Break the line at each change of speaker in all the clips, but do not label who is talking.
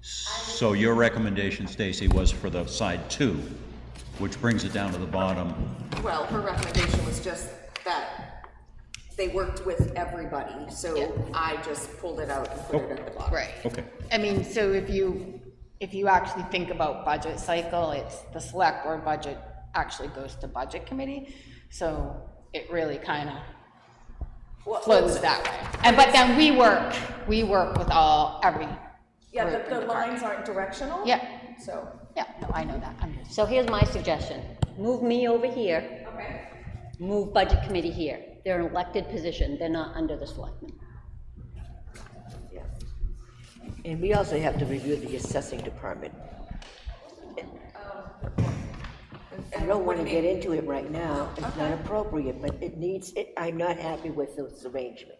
So your recommendation, Stacy, was for the side two, which brings it down to the bottom.
Well, her recommendation was just that they worked with everybody,
Yeah.
so I just pulled it out and put it at the bottom.
Right.
Okay.
I mean, so if you, if you actually think about budget cycle, it's the select board budget actually goes to budget committee, so it really kind of
Well,
flows
that's-
that way. And, but then we work, we work with all, every,
Yeah,
Right,
the, the
right.
lines aren't directional.
Yeah.
So,
yeah, no, I know that, I'm just,
So here's my suggestion. Move me over here,
okay,
move budget committee here. They're an elected position, they're not under the selectmen.
yeah.
And we also have to review the assessing department. I don't want to get into it right now, it's not appropriate, but it needs, it- I'm not happy with this arrangement.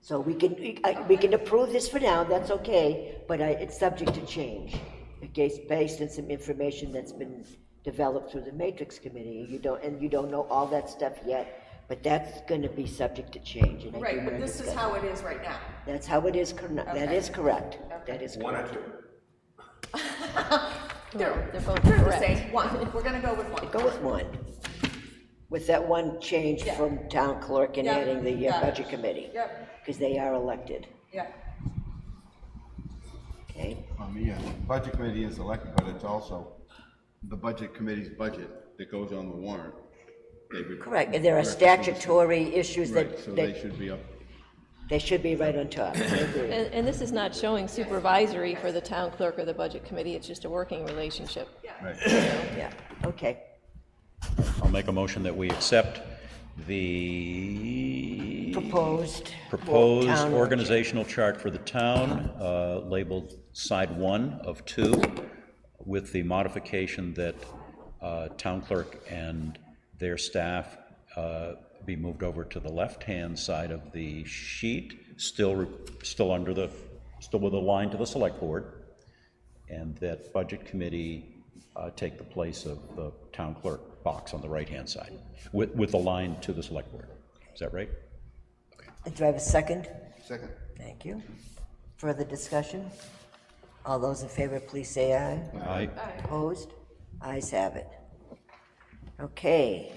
So we can, we- I- we can approve this for now, that's okay, but I- it's subject to change. Okay, it's based on some information that's been developed through the matrix committee, you don't, and you don't know all that stuff yet, but that's gonna be subject to change. and I do
Right, but
wanna
this is
discuss-
how it is right now.
That's how it is, corn- that is correct, that is correct.
One or two?
They're, they're both the same, one, we're gonna go with one.
Go with one, with that one change
Yeah.
from town clerk and
Yeah,
adding the
got
uh,
it.
budget committee.
Yep.
Because they are elected,
Yeah,
okay?
Um, yeah, budget committee is elected, but it's also the budget committee's budget that goes on the warrant. They would-
Correct, and there are statutory issues
Right, so
that,
they
that,
should be up.
they should be right on top, I agree.
And, and this is not showing supervisory for the town clerk or the budget committee, it's just a working relationship.
Right.
yeah, okay.
I'll make a motion that we accept the
Proposed.
proposed
town-
organizational chart for the town, uh, labeled side one of two, with the modification that uh, town clerk and their staff uh, be moved over to the left-hand side of the sheet, still, still under the, still with a line to the select board, and that budget committee uh, take the place of the town clerk box on the right-hand side, with, with the line to the select board. Is that right?
Do I have a second?
Second.
Thank you. Further discussion? All those in favor, please say aye.
Aye.
Opposed? Ayes have it. Okay.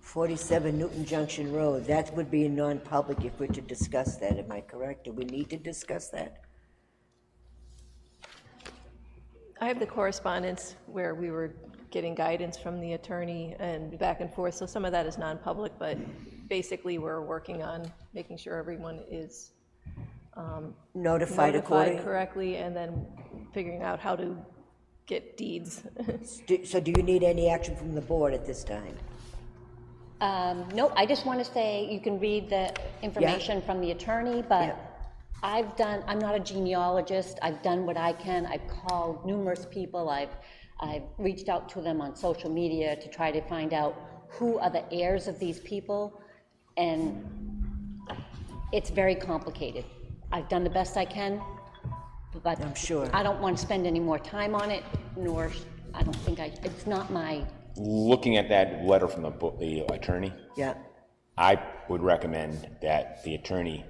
47 Newton Junction Road, that would be a non-public if we're to discuss that, am I correct? Do we need to discuss that?
I have the correspondence where we were getting guidance from the attorney and back and forth, so some of that is non-public, but basically, we're working on making sure everyone is
Notified
notified
according?
correctly, and then figuring out how to get deeds.
Do- So do you need any action from the board at this time?
Um, No, I just want to say, you can read the information from the attorney, but
Yeah.
I've done, I'm not a genealogist, I've done what I can, I've called numerous people, I've, I've reached out to them on social media to try to find out who are the heirs of these people, and it's very complicated. I've done the best I can, but.
I'm sure.
I don't want to spend any more time on it, nor, I don't think I, it's not my
Looking at that letter from the bo- the attorney,
Yeah,
I would recommend that the attorney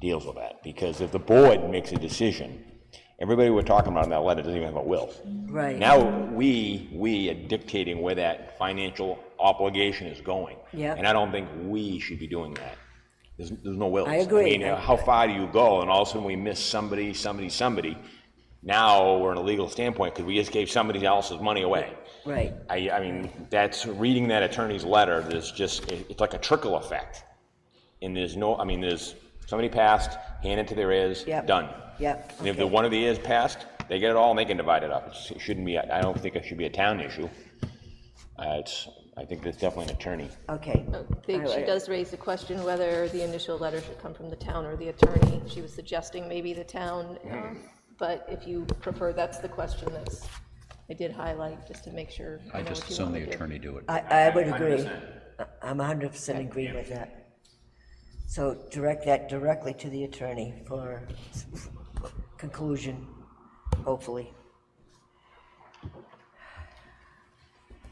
deals with that, because if the board makes a decision, everybody we're talking about in that letter doesn't even have a will.
right.
Now, we, we are dictating where that financial obligation is going.
Yeah.
And I don't think we should be doing that. There's, there's no wills.
I agree.
mean, uh, how far do you go, and all of a sudden we miss somebody, somebody, somebody? Now, we're in a legal standpoint, because we just gave somebody else's money away.
Right.
I, I mean, that's, reading that attorney's letter, there's just, it- it's like a trickle effect. And there's no, I mean, there's, somebody passed, hand it to their heirs,
Yep.
done.
Yep,
And if the one of the heirs passed, they get it all and they can divide it up. It's- It shouldn't be, I don't think it should be a town issue. Uh, it's, I think that's definitely an attorney.
Okay.
They-
All
She
right.
does raise the question whether the initial letter should come from the town or the attorney. She was suggesting maybe the town, um, but if you prefer, that's the question that's, I did highlight, just to make sure.
I
know
just
what you
assume the
wanna do.
attorney do it.
I, I would agree. I- I'm 100% agree with that. So direct that directly to the attorney for conclusion, hopefully.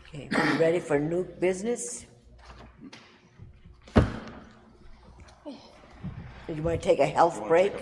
Okay, we ready for new business? Did you want to take a health break?